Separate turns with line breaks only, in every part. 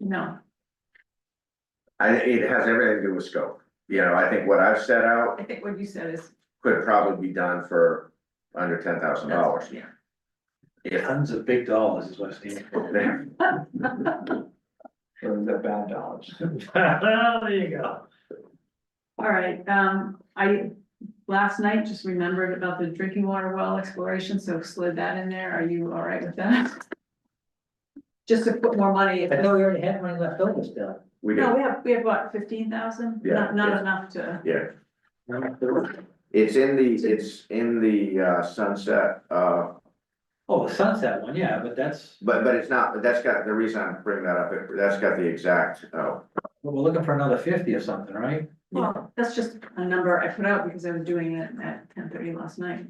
No,
I, it has everything to do with scope, you know, I think what I've set out
I think what you said is.
could probably be done for under ten thousand dollars.
Yeah.
If,
Tons of big dollars is what's needed.
Or the bad dollars.
There you go.
All right, um, I, last night just remembered about the drinking water well exploration, so slid that in there. Are you all right with that? Just to put more money, if,
I know we already had money left over still.
we
no,
do,
we have, we have what, fifteen thousand?
Yeah,
Not, not
yeah.
enough to,
yeah,
Oh,
it's in the, it's in the uh, sunset, uh,
oh, the sunset one, yeah, but that's,
but, but it's not, but that's got, the reason I'm bringing that up, it- that's got the exact, oh.
but we're looking for another fifty or something, right?
well, that's just a number I put out because I was doing it at ten thirty last night.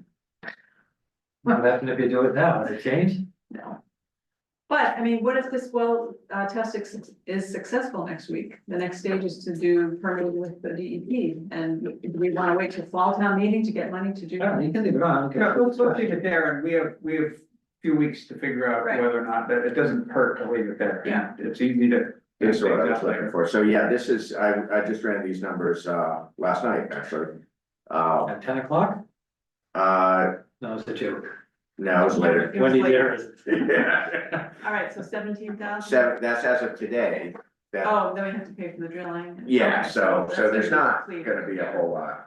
What happened if you do it now, Does it change?
No. But, I mean, what if this well, uh, test is- is successful next week? The next stage is to do permitting with the DEP, and do we wanna wait till fall town meeting to get money to do?
No, you can leave it on, okay.
Yeah, let's, let's leave it there, and we have, we have a few weeks to figure out
Right.
whether or not, that it doesn't hurt to leave it there.
Yeah.
It's easy to.
Here's what I was looking for, so yeah, this is, I, I just ran these numbers, uh, last night, actually. Uh,
At ten o'clock?
uh,
No, it's a joke.
no, it's later.
It was
Wendy,
later.
there is.
Yeah.
All right, so seventeen thousand?
Seven, that's as of today, that
Oh, then we have to pay for the drilling.
Yeah,
Okay,
so, so
that's
there's not
clear.
gonna be a whole lot.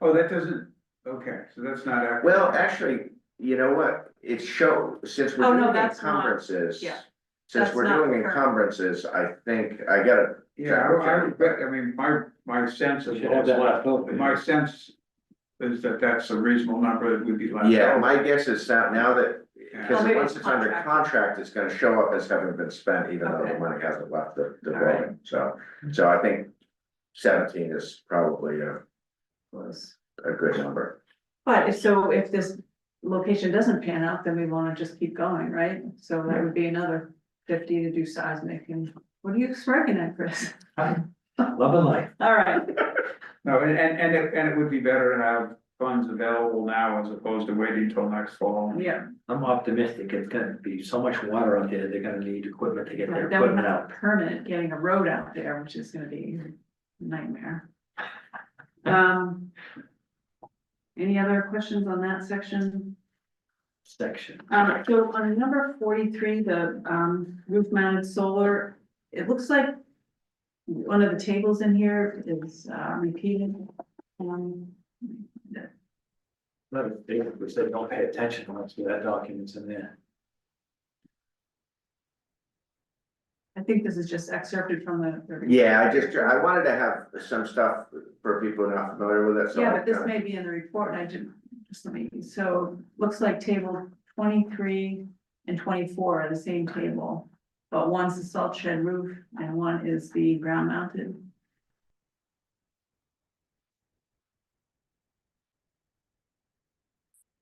Oh, that doesn't, okay, so that's not accurate.
Well, actually, you know what, it show, since
Oh,
we're
no,
doing
that's not-
encumbrances.
yeah.
Since
That's
we're
not
doing
current.
encumbrances, I think, I gotta,
Yeah, I, I, but, I mean, my, my sense
You
is,
should have that left over.
my sense is that that's a reasonable number that would be left.
yeah,
over.
my guess is that now that,
Yeah.
Well,
cause
Oh, maybe
once
it's
it's under
contract.
contract, it's gonna show up as having been spent, even though
Okay.
the money hasn't left the, the
All right.
building, so. So I think seventeen is probably a,
Close.
a good number.
But if, so if this location doesn't pan out, then we wanna just keep going, right? So that would be another fifty to do seismic, and what are you smirking at, Chris?
Love and life.
All right,
No, and, and, and it, and it would be better to have funds available now as opposed to waiting till next fall.
yeah.
I'm optimistic. It's gonna be so much water out there, they're gonna need equipment to get their
Right, That would
equipment
have a
out.
permit, getting a road out there, which is gonna be a nightmare. Um. Any other questions on that section?
Section.
Um, so on number forty-three, the, um, roof mounted solar, it looks like. One of the tables in here is, uh, repeated. Um,
Not a big, which they don't pay attention once we have documents in there.
I think this is just excerpted from the. the-
Yeah, I just, I wanted to have some stuff for people not familiar with it, so.
Yeah,
I
but this
kinda-
may be in the report, I didn't, just let me, so, looks like table twenty-three and twenty-four are the same table. But one's the salt shed roof and one is the ground mounted.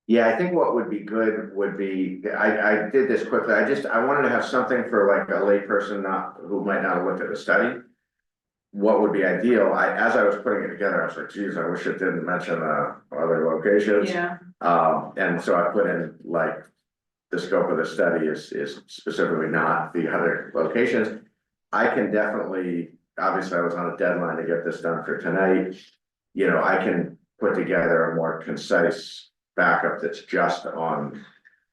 Yeah, I think what would be good would be, I, I did this quickly, I just, I wanted to have something for like a layperson not, who might not have looked at the study. What would be ideal, I, as I was putting it together, I was like, geez, I wish it didn't mention, uh, other locations.
Yeah,
Um, and so I put in like, the scope of the study is, is specifically not the other locations. I can definitely, obviously I was on a deadline to get this done for tonight. You know, I can put together a more concise backup that's just on,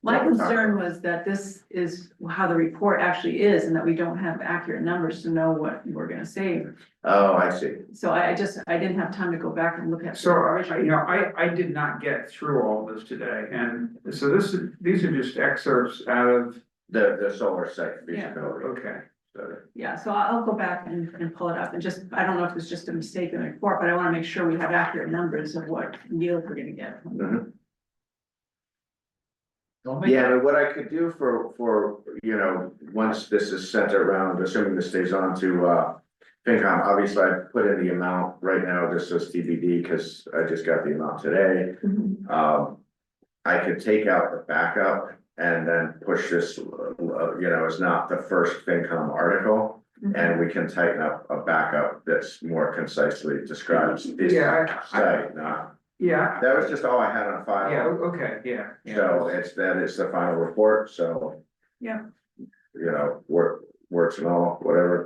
my concern was that this is how the report actually is and that we don't have accurate numbers to know what we're gonna save.
oh, I see.
So I, I just, I didn't have time to go back and look at. the
So, I- you
original.
know, I, I did not get through all this today, and so this, is these are just excerpts out of,
The, the solar site feasibility
okay.
study.
Yeah, so I'll I'll go back and, and pull it up and just, I don't know if it's just a mistake in the report, but I wanna make sure we have accurate numbers of what yield we're gonna get.
Don't make
Yeah, but what I could do for, for, you know, once this is sent around, assuming this stays on to, uh. FinCom, obviously I put in the amount right now, just as TBD, cause I just got the amount today, um. I could take out the backup and then push this, uh, you know, it's not the first FinCom article. And we can tighten up a backup that's more concisely describes this
Yeah, I- I-
site, not,
Yeah,
that was just all I had on file.
yeah, o- okay, yeah. yeah.
Uh, So it's, that is the final report, so.
Yeah.
You know, work, works and all, whatever.